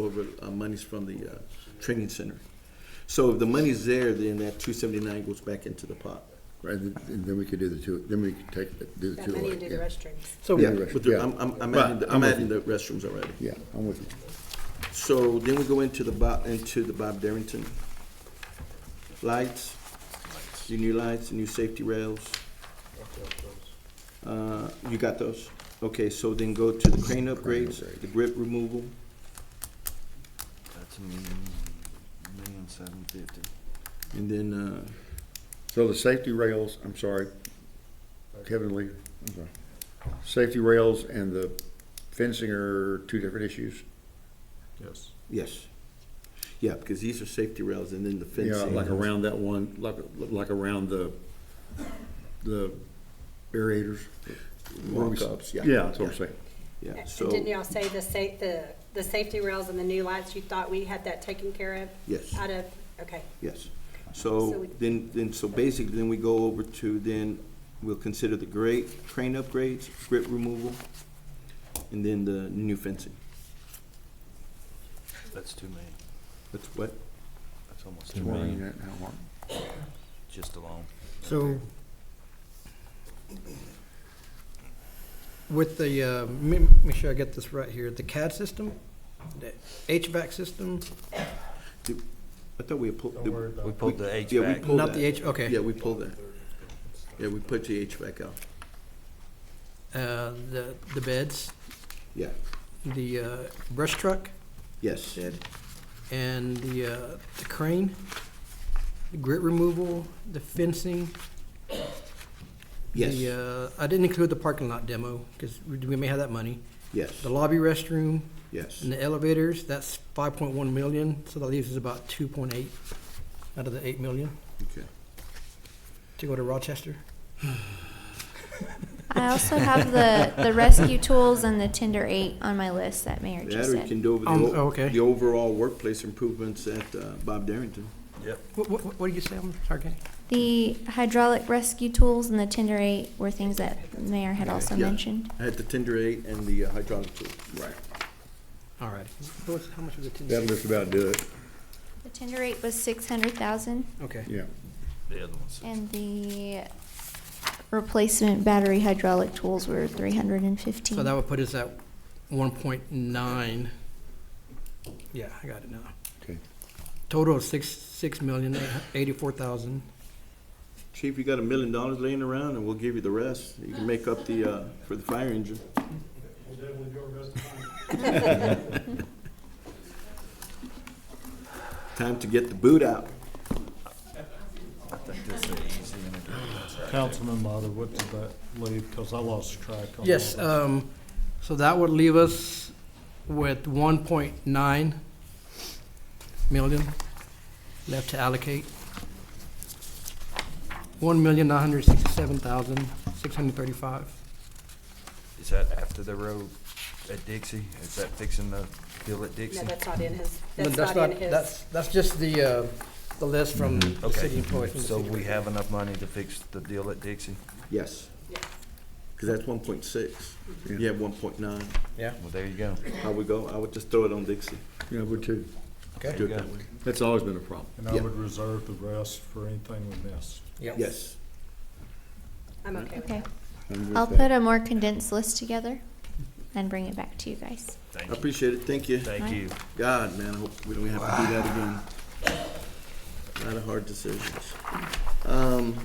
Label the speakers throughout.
Speaker 1: over uh, monies from the uh, training center. So if the money's there, then that two seventy-nine goes back into the pot.
Speaker 2: Right, and and then we could do the two, then we could take, do the
Speaker 3: That
Speaker 2: two.
Speaker 3: money
Speaker 2: alike,
Speaker 3: into the
Speaker 2: yeah.
Speaker 3: restrooms.
Speaker 4: So,
Speaker 2: Yeah, right.
Speaker 1: But there- I'm, I'm, I'm
Speaker 2: But
Speaker 1: adding, the- I'm
Speaker 2: with
Speaker 1: adding the
Speaker 2: you.
Speaker 1: restrooms already.
Speaker 2: Yeah, I'm with you.
Speaker 1: So then we go into the Bob, into the Bob Darrington. Lights, your new lights, new safety rails. Uh, you got those? Okay, so then go to the crane upgrades,
Speaker 2: upgrade.
Speaker 1: the grip removal,
Speaker 5: That's a million, million seven fifty.
Speaker 1: and then, uh,
Speaker 2: So the safety rails, I'm sorry, Kevin Lee, I'm sorry. Safety rails and the fencing are two different issues?
Speaker 5: Yes.
Speaker 1: yes. Yeah, because these are safety rails and then the
Speaker 2: Yeah,
Speaker 1: fencing.
Speaker 2: like around that one, like, like around the, the aerators.
Speaker 1: Walk-ups, yeah.
Speaker 2: Yeah, that's what I'm saying.
Speaker 1: Yeah,
Speaker 3: And
Speaker 1: so,
Speaker 3: didn't y'all say the sa, the, the safety rails and the new lights, you thought we had that taken care of?
Speaker 1: Yes.
Speaker 4: uh,
Speaker 3: Out of, okay.
Speaker 1: yes.
Speaker 3: So
Speaker 1: So
Speaker 3: we-
Speaker 1: then, then, so basically, then we go over to then, we'll consider the great crane upgrades, grip removal, and then the new fencing.
Speaker 5: That's two million.
Speaker 1: That's what?
Speaker 5: That's almost two
Speaker 2: Just wondering
Speaker 5: million,
Speaker 2: that, how long.
Speaker 5: just alone.
Speaker 4: so with the, uh, me- make sure I get this right here, the CAD system, the HVAC system,
Speaker 1: I thought we had pulled.
Speaker 6: Don't worry about
Speaker 5: We pulled the
Speaker 1: Yeah, we
Speaker 5: HVAC.
Speaker 1: pulled
Speaker 4: not the
Speaker 1: that.
Speaker 4: H, okay.
Speaker 1: Yeah, we pulled that. Yeah, we put the HVAC out.
Speaker 4: Uh, The the beds,
Speaker 1: Yeah,
Speaker 4: the uh, brush truck,
Speaker 1: yes.
Speaker 4: and the uh, the crane, the grit removal, the fencing.
Speaker 1: Yes.
Speaker 4: The, uh, I didn't include the parking lot demo, because we we may have that money.
Speaker 1: Yes,
Speaker 4: The lobby restroom,
Speaker 1: yes.
Speaker 4: And the elevators, that's five point one million, so that leaves us about two point eight out of the eight million
Speaker 1: Okay.
Speaker 4: to go to Rochester.
Speaker 7: I also have the, the rescue tools and the Tinder eight on my list that Mayor
Speaker 1: That
Speaker 7: just
Speaker 1: or you
Speaker 7: said.
Speaker 1: can do over the,
Speaker 4: Um,
Speaker 1: o-
Speaker 4: okay.
Speaker 1: the overall workplace improvements at uh, Bob Darrington.
Speaker 5: Yep.
Speaker 4: What, what, what did you say, I'm sorry, Kenny?
Speaker 7: The hydraulic rescue tools and the Tinder eight were things that the Mayor had also
Speaker 1: Yeah.
Speaker 7: mentioned.
Speaker 1: I had the Tinder eight and the uh, hydraulic tool. Right.
Speaker 4: All right, What was- how much was the
Speaker 2: That'll
Speaker 4: Tinder?
Speaker 2: just about do it,
Speaker 7: The Tinder eight was six hundred thousand,
Speaker 4: Okay,
Speaker 2: yeah.
Speaker 5: The other one's.
Speaker 7: and the replacement battery hydraulic tools were three hundred and fifteen.
Speaker 4: so that would put us at one point nine. Yeah, I got it now.
Speaker 2: Okay.
Speaker 4: Total of six, six million, eight hu- eighty-four thousand.
Speaker 1: Chief, you got a million dollars laying around and we'll give you the rest. You can make up the, uh, for the fire engine.
Speaker 6: We'll definitely do our best to find it.
Speaker 1: Time to get the boot out.
Speaker 5: I think that's the easy one to do.
Speaker 6: Councilman Motta, what did that leave? Because I lost track on all
Speaker 4: Yes,
Speaker 6: that.
Speaker 4: um, so that would leave us with one point nine million left to allocate. One million nine hundred sixty-seven thousand six hundred thirty-five.
Speaker 5: Is that after the road at Dixie? Is that fixing the hill at Dixie?
Speaker 3: No, that's not in his, that's not in his.
Speaker 4: That's, that's just the, uh, the list from the
Speaker 5: Okay.
Speaker 4: city employees. from the
Speaker 5: So
Speaker 4: city.
Speaker 5: we have enough money to fix the deal at Dixie?
Speaker 1: Yes,
Speaker 3: Yes.
Speaker 1: because that's one point six. You have one point nine.
Speaker 4: Yeah,
Speaker 5: Well, there you go.
Speaker 1: How we go? I would just throw it on Dixie.
Speaker 2: Yeah, we too.
Speaker 4: okay.
Speaker 1: Do it that way.
Speaker 2: That's always been a problem.
Speaker 6: And I
Speaker 1: yeah.
Speaker 6: would reserve the rest for anything we missed.
Speaker 4: Yeah.
Speaker 1: Yes.
Speaker 3: I'm okay with
Speaker 7: Okay,
Speaker 3: that.
Speaker 2: I'm with
Speaker 7: I'll
Speaker 2: that.
Speaker 7: put a more condensed list together and bring it back to you guys.
Speaker 1: I appreciate it. Thank you.
Speaker 5: Thank you.
Speaker 1: God, man, I hope we don't have to do that again. A lot of hard decisions. Um,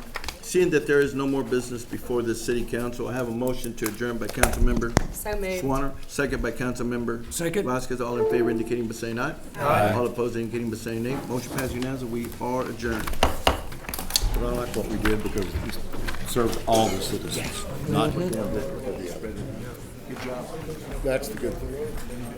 Speaker 1: Seeing that there is no more business before the city council, I have a motion to adjourn by Councilmember
Speaker 3: So moved.
Speaker 1: Swanner, second by Councilmember.
Speaker 4: Second.
Speaker 1: Vasquez, all in favor indicating by saying aye. Aye. All opposed indicating by saying nay. Motion passed unanimously. We are adjourned.
Speaker 2: But I like what we did because it served all the citizens, not just one group or the other. That's the good thing.